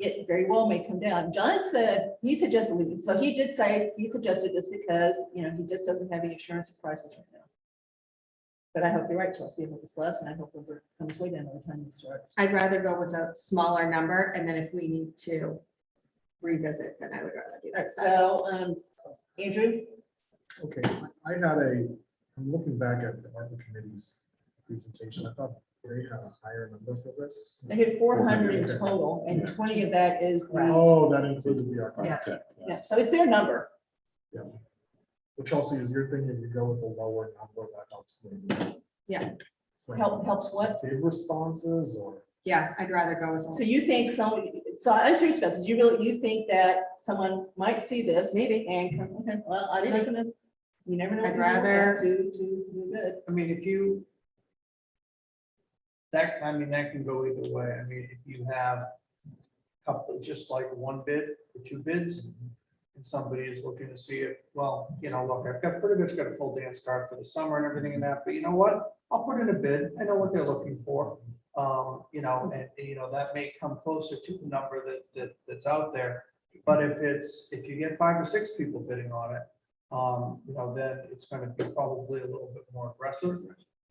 it very well may come down. John said, he suggested, we- so he did say, he suggested this because, you know, he just doesn't have any assurance of prices right now. But I hope you're right, Chelsea, with this last, and I hope it comes way down by the time you start. I'd rather go with a smaller number and then if we need to revisit, then I would rather do All right, that. So so, um, Andrew, Okay, I had a, I'm looking back at the ARPA committee's presentation. I thought they had a higher number for this. they had four hundred in Okay. total, and Yeah. twenty of that is the, Oh, that included the ARPA. Yeah. Okay. yeah, so it's their number. Well, Chelsea, is your thing, if you go with the lower number, that helps maybe. Yeah. Help- helps what? Give responses or, yeah, I'd rather go with, So a- you think somebody, so I'm serious about this, you really, you think that someone might see this? Maybe. And come, okay, well, I didn't, come in. you never know. I'd rather- To, to, do good. I mean, if you. That, I mean, that can go either way. I mean, if you have a couple, just like one bid or two bids. And somebody is looking to see if, well, you know, look, I've got pretty much got a full dance card for the summer and everything and that, but you know what? I'll put in a bid. I know what they're looking for. Um, you know, and, and, you know, that may come closer to the number that, that, that's out there. But if it's, if you get five or six people bidding on it, um, you know, then it's gonna be probably a little bit more aggressive.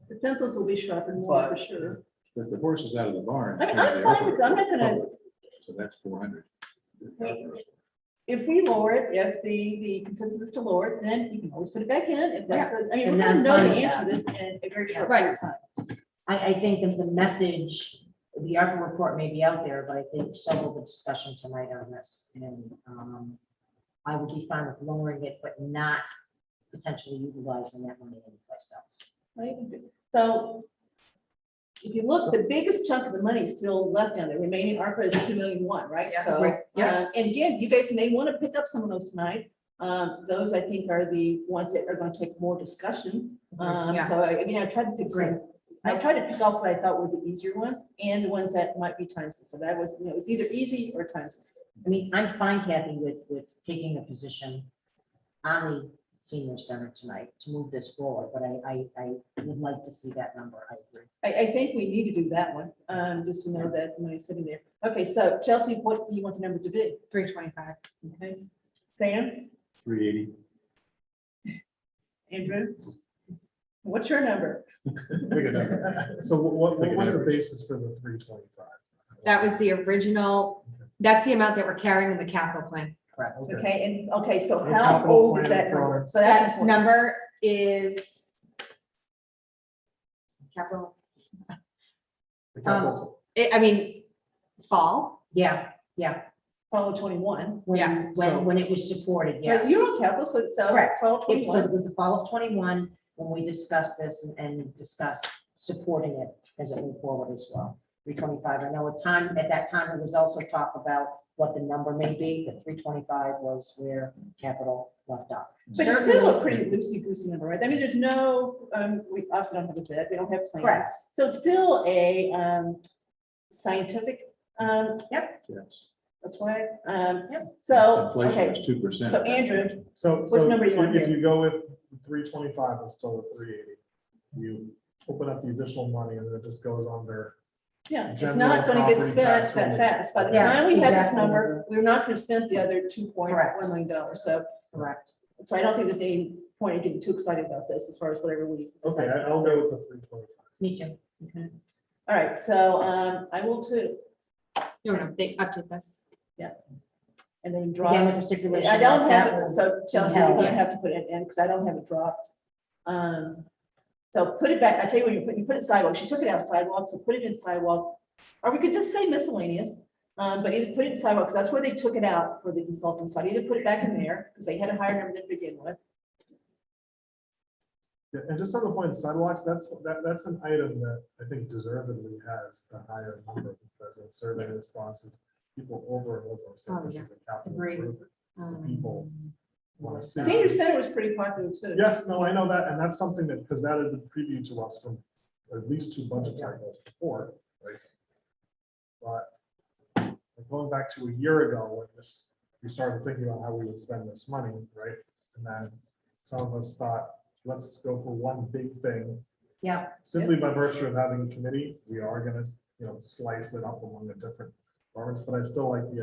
The pencils will be sharpened more for But- sure. But the horse is out of the barn. I mean, I'm fine with, I'm not gonna, So that's four hundred. Wait. if we lower it, if the, the consensus is to lower it, then you can always put it back in. If that's, a- I mean, And we're gonna then know the find answer out. to this in a very short Right. period of time. I, I think that the message, the ARPA report may be out there, but I think some of the discussion tonight on this. And um, I would be fine with lowering it, but not potentially utilizing that money anyplace else. Right, so if you look, the biggest chunk of the money is still left down there, remaining ARPA is two million one, right? Yeah. So, Right, yeah. uh, and again, you guys may want to pick up some of those tonight. Um, those I think are the ones that are going to take more discussion. Um, Yeah. so I, I mean, I tried to pick some, I tried to pick up what I thought were the easier ones and the ones that might be time sensitive. That was, you know, it's either easy or time sensitive. I mean, I'm fine, Kathy, with, with taking a position on the senior center tonight to move this forward, but I, I, I would like to see that number. I agree. I, I think we need to do that one, um, just to know that the money's sitting there. Okay, so Chelsea, what do you want the number to be? three twenty-five. Okay, Sam? Three eighty. Andrew? What's your number? pick a number. so what, what Pick an was the average. basis for the three twenty-five? That was the original, that's the amount that we're carrying in the capital plan. Okay, and, okay, so Your how capital old is plan that number? program. So Oh, that's That important. number is capital, The um, capital- it- I mean, fall, Yeah, Twelve twenty-one. when, Yeah. So- when, when it was supported, Right, yes. you're on capital, so it's Correct. twelve It was, it twenty-one. was the fall of twenty-one when we discussed this and- and discussed supporting it as it moved forward as well. Three twenty-five, I know at time, at that time, there was also talk about what the number may be, but three twenty-five was where capital left off. But it's still a pretty loosey-goosey number, right? That means there's no, um, we obviously don't have a bid, we don't have plans. Correct. So it's still a, um, scientific, um, Yes. that's why, um, Yep. so, Inflation okay. is two percent. So Andrew, So, so number you want if here? you go with three twenty-five, it's still a three eighty. You open up the additional money and then it just goes on there. yeah, it's General not gonna get property spent tax that relief. fast. By the Yeah, time we have this exactly. number, we're not gonna spend the other two point Correct. one million dollars, so Correct. So I don't think there's any point in getting too excited about this as far as whatever we Okay, decide. I- I'll go with the three twenty-five. Me too. All right, so um, I will too, no, no, they update this. and then drop. Again, with the stipulation. I don't that have, that it, will- so Chelsea, held, you're gonna yeah. have to put it in, because I don't have it dropped. Um, so put it back, I tell you what, you put, you put it sidewalk, she took it out sidewalk, so put it in sidewalk. Or we could just say miscellaneous, um, but either put it in sidewalk, because that's where they took it out for the consultants, so I'd either put it back in there, because they had a higher number to begin with. Yeah, and just on the point of sidewalks, that's, that, that's an item that I think deservedly has the higher number because in survey responses, people over and over say Oh, this yeah. is a capital Agreed. improvement. Um, People want to see. Senior it. Center was pretty popular too. Yes, no, I know that, and that's something that, because that had been previewed to us from at least two budget cycles before, right? But going back to a year ago, when this, we started thinking about how we would spend this money, right? And then some of us thought, let's go for one big thing. Yeah. Simply by virtue of having a committee, we are gonna, you know, slice it up among the different departments, but I still like the